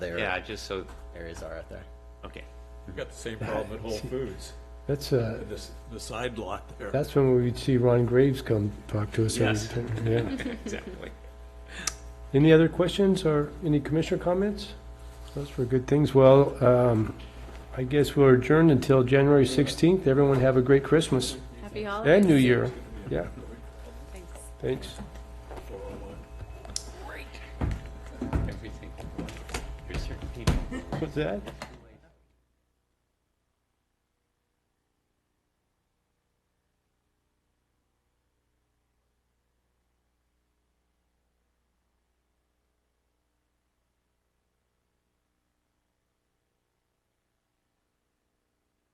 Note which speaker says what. Speaker 1: There,
Speaker 2: Yeah, just so,
Speaker 1: there is RFI.
Speaker 2: okay.
Speaker 3: We've got the same problem at Whole Foods,
Speaker 4: That's, uh,
Speaker 3: this, the side lot there.
Speaker 4: that's when we'd see Ron Graves come talk to us. every
Speaker 2: Yes.
Speaker 4: time, yeah.
Speaker 2: Exactly.
Speaker 4: Any other questions or any commissioner comments? Those were good things. Well, um, I guess we're adjourned until January 16th. Everyone have a great Christmas
Speaker 5: Happy holidays.
Speaker 4: and New Year. Yeah,
Speaker 5: Thanks.
Speaker 4: thanks.
Speaker 2: Everything. Here's your-
Speaker 4: What's that?